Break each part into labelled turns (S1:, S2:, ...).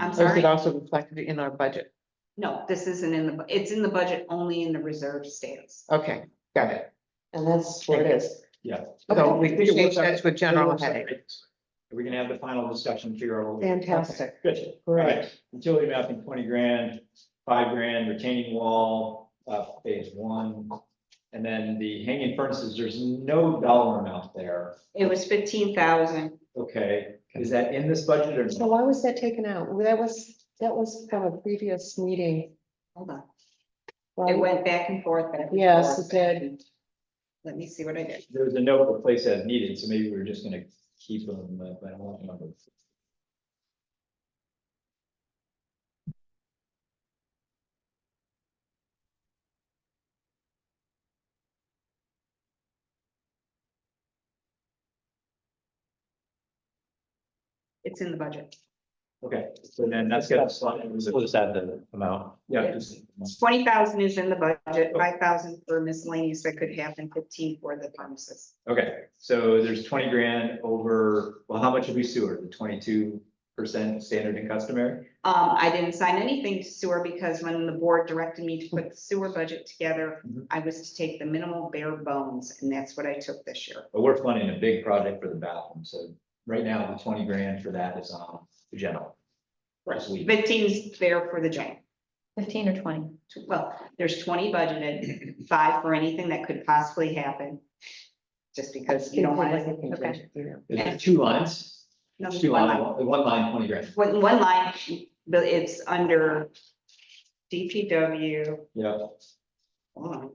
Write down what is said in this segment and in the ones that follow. S1: I'm
S2: Or is
S1: sorry,
S2: it also reflected in our budget?
S1: no, this isn't in the, bu- it's in the budget only in the reserve stance.
S2: Okay, got it.
S3: And that's where it is.
S4: Yeah.
S2: So we
S3: Okay.
S2: change that to a general
S3: It works out.
S2: heading.
S4: We're gonna have the final discussion, figure out. what we-
S3: Fantastic,
S4: Good. All
S3: great.
S4: right, utility mapping, twenty grand, five grand retaining wall, uh, phase one. And then the hanging furnaces, there's no dollar amount there.
S1: It was fifteen thousand.
S4: Okay, is that in this budget or?
S3: So
S4: not?
S3: why was that taken out? Well, That was, that was from a previous meeting.
S1: Hold on, it
S3: Well,
S1: went back and forth. back and
S3: Yes,
S1: forth,
S3: it did.
S1: Let me see what I did.
S4: There was a note for place as needed, so maybe we're just gonna keep them, uh, but I don't remember.
S1: It's in the budget.
S4: Okay, so then that's got a slide. We'll just add the amount. Yeah. just-
S1: Twenty thousand is in the budget, five thousand for miscellaneous that could happen, fifteen for the pharmacist.
S4: Okay, so there's twenty grand over, well, how much did we sewer? The twenty-two percent standard and customary?
S1: Um, I didn't sign anything to sewer because when the board directed me to put the sewer budget together,
S4: Mhm.
S1: I was to take the minimal bare bones, and that's what I took this year.
S4: But we're funding a big project for the bathroom, so right now the twenty grand for that is on the general. This week.
S1: Fifteen's there for the giant.
S5: Fifteen or twenty?
S1: Tw- Well, there's twenty budgeted, five for anything that could possibly happen. Just because you don't want to. okay.
S4: Is it two lines?
S1: No,
S4: It's two
S1: one
S4: lines,
S1: line.
S4: one line, twenty grand.
S1: One, one line, but it's under DPW,
S4: Yeah,
S1: hold on.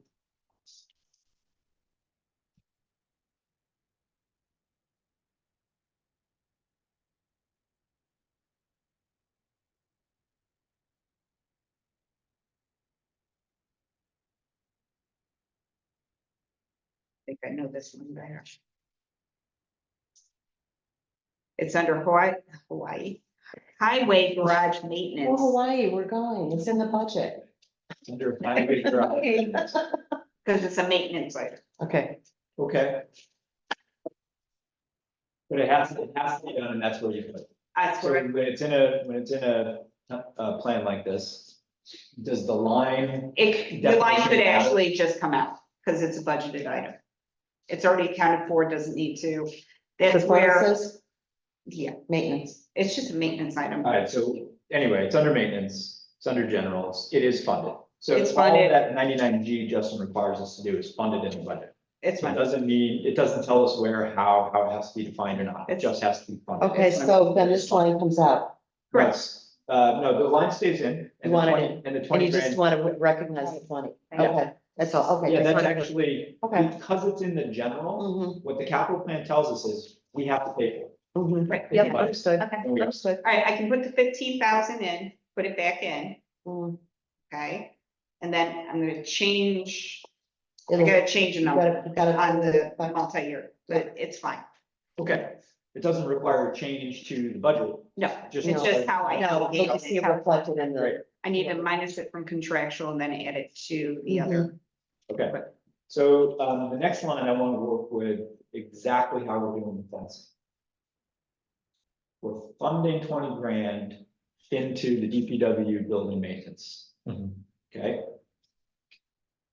S1: I think I know this one better. It's under Hawaii, Hawaii, highway garage
S3: Well,
S1: maintenance.
S3: Oh, Hawaii, we're going. It's in the budget.
S4: it's under five big projects.
S1: Because it's a maintenance item.
S2: Okay,
S4: Okay. But it has, it has to be done, and that's where you put it.
S1: That's
S4: So
S1: where,
S4: when it's in a, when it's in a, a plan like this, does the line,
S1: it, the line could
S4: Definition.
S1: actually just come out, because it's a budgeted item. It's already accounted for, doesn't need to. That's
S3: The
S1: where,
S3: process,
S1: yeah,
S3: maintenance.
S1: it's just a maintenance item.
S4: all right, so anyway, it's under maintenance, it's under generals, it is funded. So
S1: It's
S4: all
S1: funded.
S4: that ninety-nine G Justin requires us to do is funded in the budget.
S1: It's
S4: So It
S1: fine.
S4: doesn't mean, it doesn't tell us where, how, how it has to be defined or not, it
S1: It's-
S4: just has to be funded.
S3: Okay, so then this line comes out.
S1: Correct.
S4: Yes. Uh, no, the line stays in. and the
S3: You want it
S4: 20
S3: in,
S4: And the
S3: And
S4: twenty
S3: you just
S4: grand,
S3: want to recognize the twenty.
S1: Yeah.
S3: Okay, that's all. Okay.
S4: yeah,
S3: just
S4: that's
S3: wanted to-
S4: actually,
S3: Okay.
S4: because it's in the general,
S3: Mhm,
S2: Mm-hmm.
S4: what the capital plan tells us is, we have to pay for it.
S3: mhm.
S2: Mm-hmm.
S1: Right,
S4: Yeah.
S3: Yep, understood,
S5: Okay.
S4: And we are.
S3: understood.
S1: all right, I can put the fifteen thousand in, put it back in,
S2: Mm-hmm.
S3: Mm.
S1: okay? And then I'm gonna change, I
S3: It'll-
S1: gotta change a
S3: you
S1: number
S3: gotta- you gotta-
S1: on the multi-year, but it's fine.
S4: Okay, it doesn't require a change to the budget.
S1: No,
S4: Just-
S1: it's just how I
S3: No, but you see
S1: allocated
S3: it
S1: it.
S3: reflected in
S4: Right,
S3: the,
S1: I need to minus it from contractual and then add it to the other.
S4: okay. So, um, the next line I want to work with exactly how we're doing the fencing. We're funding twenty grand into the DPW building maintenance. Okay?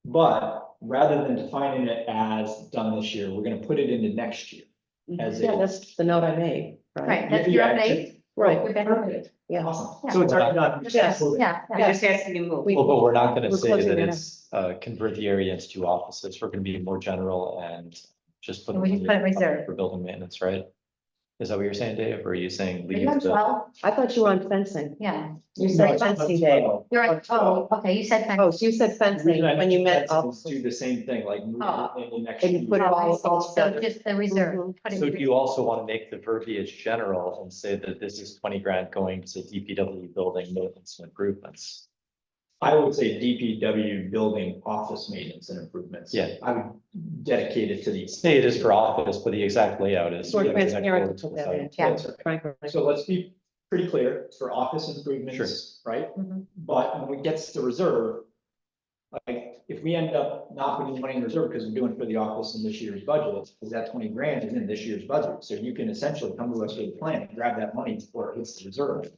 S4: But rather than defining it as done this year, we're gonna put it into next year
S1: Mm-hmm.
S4: as
S3: yeah,
S4: a.
S3: that's the note I made, right?
S5: Right, that's your
S4: Yeah,
S5: update.
S3: Right,
S5: We've been updated.
S3: yeah.
S4: Awesome. So it's already done.
S3: Yes.
S5: Yeah,
S1: It
S5: yeah.
S1: just has to be moved.
S3: We-
S6: Well, but we're not gonna
S3: We're
S6: say
S3: closing
S6: that
S3: it up.
S6: it's, uh, convert the area into two offices, we're gonna be more general and just put.
S5: And we
S6: it
S5: just put it reserved.
S6: For building maintenance, right? Is that what you're saying, Dave, or are you saying
S5: Are
S6: leave
S5: you on
S6: the,
S5: twelve?
S3: I thought you were on fencing.
S5: Yeah,
S3: You
S4: No,
S3: said
S4: it's
S3: fencing,
S4: not
S3: Dave.
S4: twelve.
S5: you're on, oh, okay, you said.
S3: Oh, so you said
S4: The reason
S3: fencing
S4: I
S3: when you
S4: mentioned
S3: meant
S4: fencing is
S3: officers.
S4: Do the same thing, like move
S5: Oh.
S4: it into next
S3: And
S4: year.
S3: you put it all- all
S5: So
S3: together. Mm-hmm.
S5: just the reserve. put it
S6: so do
S5: in-
S6: you also wanna make the verbiage general and say that this is twenty grand going to DPW building maintenance and improvements?
S4: I would say DPW building office maintenance and improvements.
S6: Yeah.
S4: I would dedicate it to these.
S6: Say it is for office, but the exact layout is.
S3: More transparent to that, end.
S5: Yeah.
S3: yeah. Frankly.
S4: So let's be pretty clear, it's for office improvements, right?
S5: Mhm.
S4: But when it gets to reserve, like, if we end up not putting money in reserve because we're doing it for the office in this year's budget, because that twenty grand is in this year's budget. So you can essentially come to us with a plan, grab that money before it hits the reserve.